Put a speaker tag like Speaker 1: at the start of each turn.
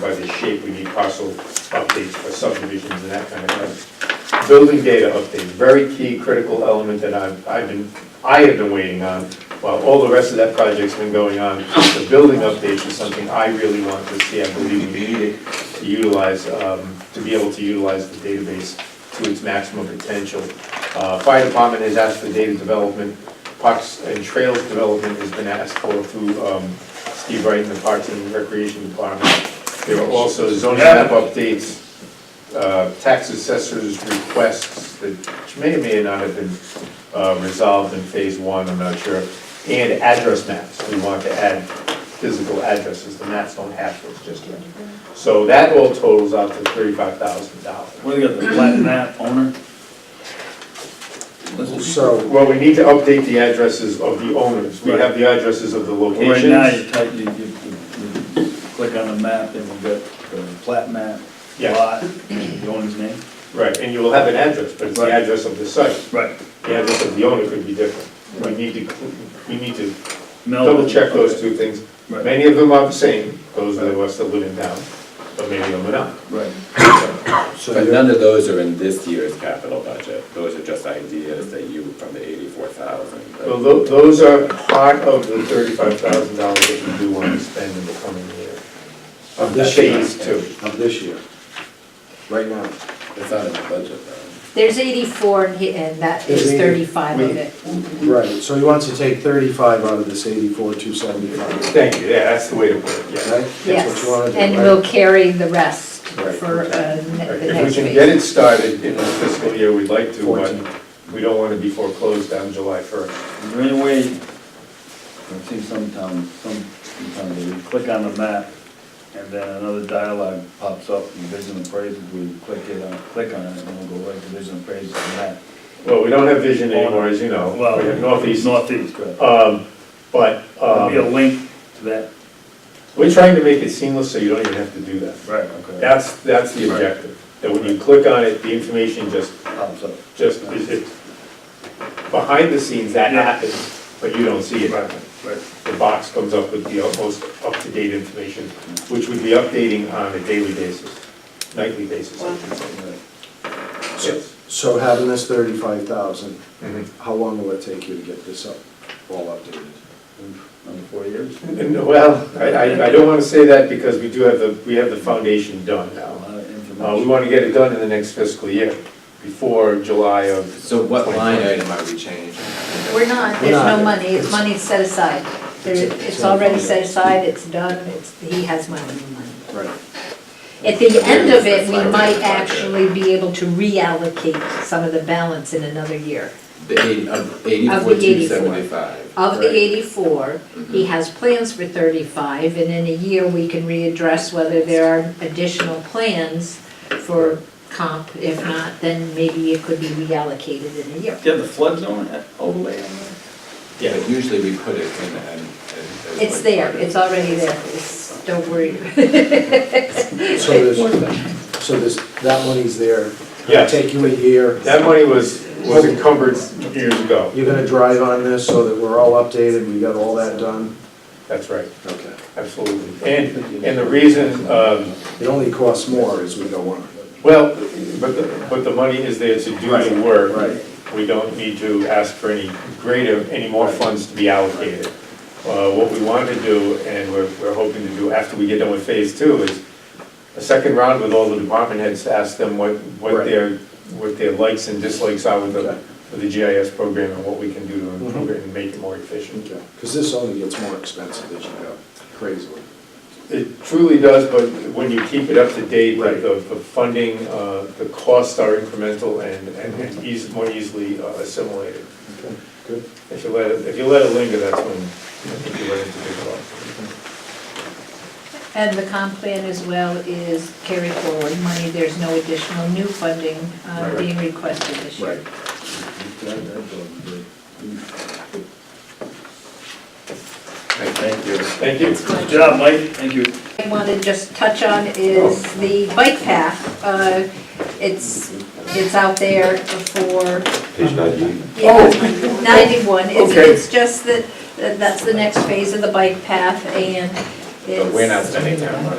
Speaker 1: by the shape, we need parcel updates for subdivisions and that kind of thing. Building data updates, very key critical element that I've, I've been, I have been waiting on, while all the rest of that project's been going on. The building updates is something I really want to see, I believe we need it to utilize, um, to be able to utilize the database to its maximum potential. Uh, Fire department has asked for data development, Parks and Trails Development has been asked for through um, Steve Wright and the Parks and Recreation Department. There were also zoning map updates, uh, tax assessors' requests that may or may not have been uh, resolved in phase one, I'm not sure. And address maps, we want to add physical addresses, the maps don't have those just yet. So that all totals out to thirty-five thousand dollars.
Speaker 2: Where they got the flat map owner? Listen,
Speaker 3: So,
Speaker 1: Well, we need to update the addresses of the owners, we have the addresses of the
Speaker 2: Right now,
Speaker 1: locations.
Speaker 2: you type, you, you, you- you click on the map, and you got the flat map,
Speaker 1: Yeah.
Speaker 2: lot, and the owner's name.
Speaker 1: Right, and you will have an address, but it's the
Speaker 2: Right.
Speaker 1: address of the site,
Speaker 2: Right.
Speaker 1: the address of the owner could be different. We need to, cl- we need to
Speaker 2: Mel-
Speaker 1: double check those two things.
Speaker 2: Right.
Speaker 1: Many of them are the same, those are the ones that live in town, but maybe of them are not.
Speaker 2: Right.
Speaker 3: so
Speaker 4: But
Speaker 3: you're,
Speaker 4: none of those are in this year's capital budget. Those are just ideas that you, from the eighty-four
Speaker 1: Well,
Speaker 4: thousand.
Speaker 1: tho- those are part of the thirty-five thousand dollars that you do want to spend in the coming year.
Speaker 3: Of this year.
Speaker 1: Phase two.
Speaker 3: of this year, right now.
Speaker 4: It's not in the budget though.
Speaker 5: There's 84 and he- and that
Speaker 3: There's
Speaker 5: is
Speaker 3: 80.
Speaker 5: 35 of
Speaker 1: We-
Speaker 5: it.
Speaker 3: Right, so he wants to take thirty-five out of this eighty-four, two seventy-five,
Speaker 1: Thank you, yeah, that's the way to put it, yeah.
Speaker 3: right?
Speaker 5: Yes,
Speaker 3: That's what you
Speaker 5: and
Speaker 3: wanna
Speaker 5: we'll
Speaker 3: do, right?
Speaker 5: carry the rest
Speaker 3: Right,
Speaker 5: for uh,
Speaker 3: okay.
Speaker 5: ne- the
Speaker 1: If we
Speaker 5: next
Speaker 1: can get
Speaker 5: week.
Speaker 1: it started in the fiscal year, we'd like to,
Speaker 3: Fourteen.
Speaker 1: but we don't want to be foreclosed on July first.
Speaker 2: Is there any way, I've seen some towns, some, some towns, they click on the map, and then another dialogue pops up, and vision appraisal, we click it, on click on it, and we'll go right to vision appraisal and that.
Speaker 1: Well, we don't have vision anymore, as you know, we have Northeast.
Speaker 2: Northeast, right.
Speaker 1: Um, But
Speaker 2: There'll be a
Speaker 1: um,
Speaker 2: link to that.
Speaker 1: we're trying to make it seamless, so you don't even have to do that.
Speaker 2: Right, okay.
Speaker 1: That's, that's the objective, that when you click on it, the information just,
Speaker 2: Pops up.
Speaker 1: just, it- it- behind the scenes, that
Speaker 2: Yeah.
Speaker 1: happens, but you don't see it.
Speaker 2: Right, right.
Speaker 1: The box comes up with the most up-to-date information, which we'd be updating on a daily basis, nightly basis, I should say. Yes.
Speaker 3: So having this thirty-five thousand,
Speaker 1: Mhm.
Speaker 3: how long will it take you to get this up, all updated?
Speaker 2: Another four years?
Speaker 1: And, Well, I, I- I don't want to say that because we do have the, we have the foundation done
Speaker 2: A
Speaker 1: now.
Speaker 2: lot of
Speaker 1: Uh, We
Speaker 2: information.
Speaker 1: want to get it done in the next fiscal year, before July of.
Speaker 4: So what line
Speaker 1: 2020.
Speaker 4: item are we changing?
Speaker 5: We're not,
Speaker 3: We're
Speaker 5: there's
Speaker 3: not.
Speaker 5: no money, it's money set aside. There- It's already set aside, it's done, it's, he has money, money.
Speaker 3: Right.
Speaker 5: At the end of it, we might actually be able to reallocate some of the balance in another year.
Speaker 4: The eighty, of eighty-four, two
Speaker 5: 84,275.
Speaker 4: seventy-five.
Speaker 5: Of the 84, he has plans for 35, and in a year, we can readdress whether there are additional plans for comp. If not, then maybe it could be reallocated in a year.
Speaker 2: Do you have the flood zone overlay on there?
Speaker 4: Yeah, but usually we put it in, and. and-
Speaker 5: It's there, it's already there, it's, don't worry.
Speaker 3: So there's, so there's, that money's there. It'll
Speaker 1: Yes.
Speaker 3: Take you a year.
Speaker 1: That money was, was encumbered years ago,
Speaker 3: You're gonna drive on this so that we're all updated, we got all that done?
Speaker 1: that's right,
Speaker 3: Okay.
Speaker 1: absolutely. And, and the reason, um,
Speaker 3: It only costs more as we go on.
Speaker 1: well, but, the- but the money is there to do the work.
Speaker 3: Right.
Speaker 1: We don't need to ask for any greater, any more funds to be allocated. Uh, What we want to do, and we're, we're hoping to do after we get done with phase two, is a second round with all the department heads to ask them what, what
Speaker 3: Right.
Speaker 1: their, what their likes and dislikes are with the,
Speaker 3: Okay.
Speaker 1: with the GIS program and what we can do to
Speaker 3: Mm-hmm.
Speaker 1: improve it and make it more efficient.
Speaker 3: Okay, because this only gets more expensive as you go, crazily.
Speaker 1: It truly does, but when you keep it up to date, like the, the funding, uh, the costs are incremental and, and and eas, more easily uh, assimilated.
Speaker 3: Okay, good.
Speaker 1: If you let it, if you let it linger, that's when, I think you run into big problems.
Speaker 5: And the comp plan as well is carry forward money, there's no additional new funding uh,
Speaker 3: Right.
Speaker 5: being requested this year.
Speaker 2: That- that doesn't do it.
Speaker 4: Right, Thank you.
Speaker 1: Thank you.
Speaker 2: Good job, Mike, thank you.
Speaker 5: I want to just touch on is the bike path. Uh, It's, it's out there for
Speaker 6: Page 98.
Speaker 5: Yeah, 91, it's,
Speaker 1: Okay.
Speaker 5: it's just that, that- that's the next phase of the bike path, and it's...
Speaker 4: But we're not spending town money.